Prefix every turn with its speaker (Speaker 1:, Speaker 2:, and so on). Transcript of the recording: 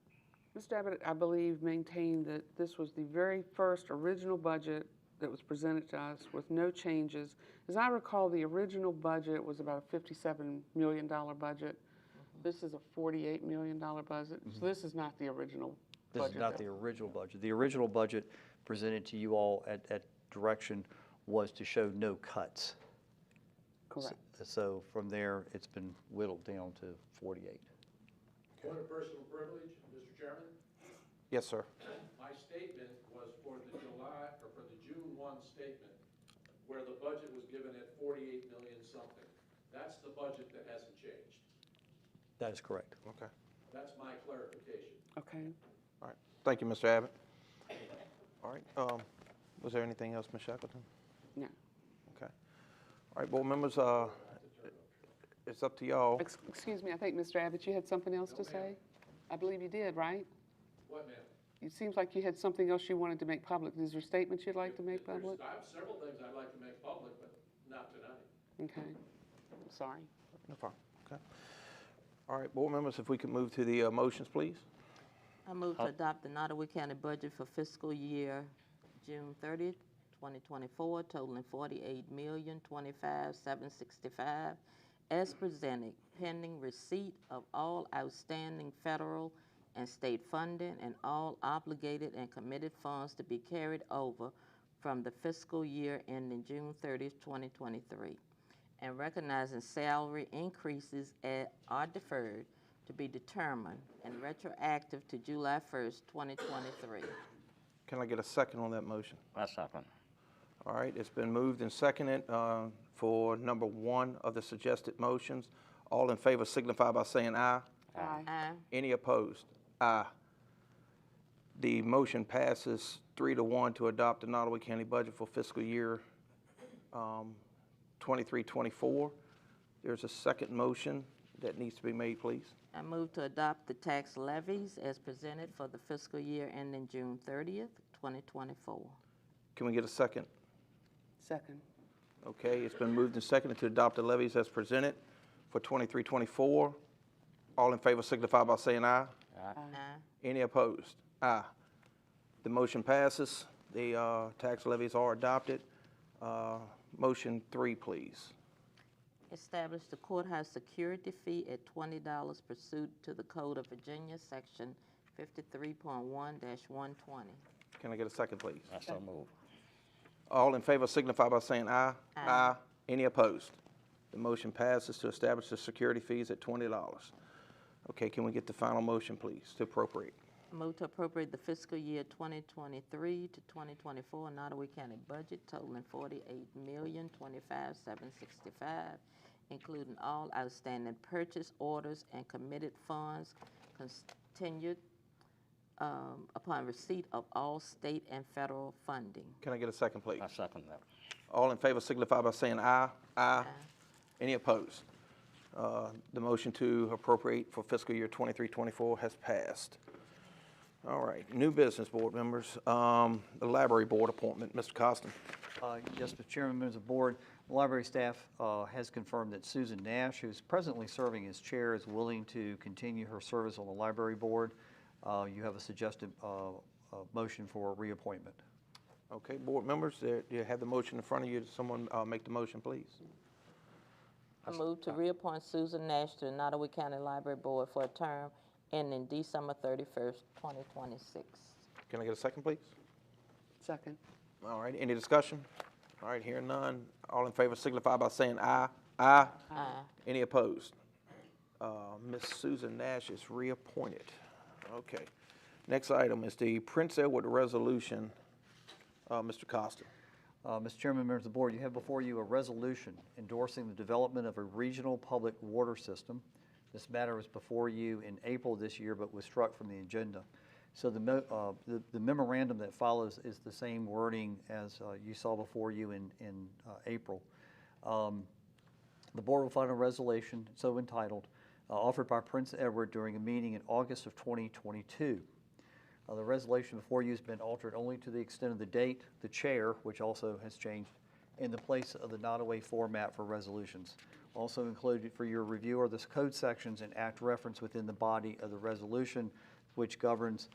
Speaker 1: Mr. Abbott, I believe, maintained that this was the very first original budget that was presented to us with no changes. As I recall, the original budget was about a fifty-seven million dollar budget.
Speaker 2: Mm-hmm.
Speaker 1: This is a forty-eight million dollar budget, so this is not the original
Speaker 2: This is
Speaker 1: budget.
Speaker 2: not
Speaker 1: that-
Speaker 2: the original budget. The original budget presented to you all at, at direction was to show no cuts.
Speaker 1: Correct.
Speaker 2: So from there, it's been whittled down to 48.
Speaker 3: What a personal privilege, Mr. Chairman.
Speaker 4: Yes, sir.
Speaker 3: My statement was for the July, or for the June one statement, where the budget was given at forty-eight million something. That's the budget that hasn't changed.
Speaker 2: That is correct.
Speaker 4: Okay.
Speaker 3: That's my clarification.
Speaker 1: Okay.
Speaker 4: All right. Thank you, Mr. Abbott. All right. Um, was there anything else, Ms. Shackleton?
Speaker 1: No.
Speaker 4: Okay. All right, board members, uh, it's up to
Speaker 2: Oh.
Speaker 4: y'all.
Speaker 1: Ex- Excuse me, I think, Mr. Abbott, you had something else to say? I believe you did, right?
Speaker 3: What, ma'am?
Speaker 1: It seems like you had something else you wanted to make public. Is there statements you'd like to make
Speaker 3: There's-
Speaker 1: public?
Speaker 3: I have several things I'd like to make public, but not tonight.
Speaker 1: Okay, sorry.
Speaker 4: No problem. Okay. All right, board members, if we could move to the uh, motions, please.
Speaker 5: I move to adopt the Nottaway County budget for fiscal year June 30th, 2024, totaling 48025765 as presented, pending receipt of all outstanding federal and state funding and all obligated and committed funds to be carried over from the fiscal year ending June 30th, 2023 and recognizing salary increases at, are deferred to be determined and retroactive to July first, twenty twenty-three.
Speaker 4: Can I get a second on that motion?
Speaker 6: I second.
Speaker 4: All right, it's been moved and seconded uh, for number one of the suggested motions. All in favor signify by saying aye.
Speaker 1: Aye.
Speaker 5: Aye.
Speaker 4: Any opposed? Aye. The motion passes three to one to adopt the Nottaway County budget for fiscal year um, 23-24. twenty-four. There's a second motion that needs to be made, please.
Speaker 5: I move to adopt the tax levies as presented for the fiscal year ending June thirtieth, twenty twenty-four.
Speaker 4: Can we get a second?
Speaker 1: Second.
Speaker 4: Okay, it's been moved and seconded to adopt the levies as presented for 23-24. All in favor signify by saying aye.
Speaker 5: Aye.
Speaker 4: Any opposed? Aye. The motion passes. The uh, tax levies are adopted. Uh, Motion three, please.
Speaker 5: Establish the courthouse security fee at twenty dollars pursuant to the Code of Virginia, section fifty-three point one one twenty.
Speaker 4: Can I get a second, please?
Speaker 6: I so move.
Speaker 4: All in favor signify by saying aye.
Speaker 5: Aye.
Speaker 4: Any opposed? The motion passes to establish the security fees at twenty dollars. Okay, can we get the final motion, please, to appropriate?
Speaker 5: Move to appropriate the fiscal year 2023 to 2024 Nottaway County budget totaling 48025765 including all outstanding purchase orders and committed funds continued um, upon receipt of all state and federal funding.
Speaker 4: Can I get a second, please?
Speaker 6: I second that.
Speaker 4: All in favor signify by saying aye. Aye. Any opposed? Uh, The motion to appropriate for fiscal year 23-24 has passed. All right, new business, board members. Um, The library board appointment, Mr. Costin.
Speaker 2: Uh, Yes, Mr. Chairman, members of the board, the library staff uh, has confirmed that Susan Nash, who's presently serving as chair, is willing to continue her service on the library board. Uh, You have a suggested uh, uh, motion for reappointment.
Speaker 4: Okay, board members, there- you have the motion in front of you. Someone uh, make the motion, please.
Speaker 5: I move to reappoint Susan Nash to the Nottaway County Library Board for a term ending December 31st, 2026.
Speaker 4: Can I get a second, please?
Speaker 1: Second.
Speaker 4: All right, any discussion? All right, hearing none. All in favor signify by saying aye. Aye.
Speaker 5: Aye.
Speaker 4: Any opposed? Uh, Ms. Susan Nash is reappointed. Okay. Next item is the Prince Edward Resolution, Uh, Mr. Costa.
Speaker 2: Uh, Mr. Chairman, members of the board, you have before you a resolution endorsing the development of a regional public water system. This matter was before you in April this year, but was struck from the agenda. So the mo- uh, the the memorandum that follows is the same wording as uh, you saw before you in, in uh, April. Um, the board will find a resolution so entitled, uh, offered by Prince Edward during a meeting in August of 2022. Uh, The resolution before you has been altered only to the extent of the date, the chair, which also has changed, in the place of the Nottaway format for resolutions. Also included for your review are the code sections and act reference within the body of the resolution which governs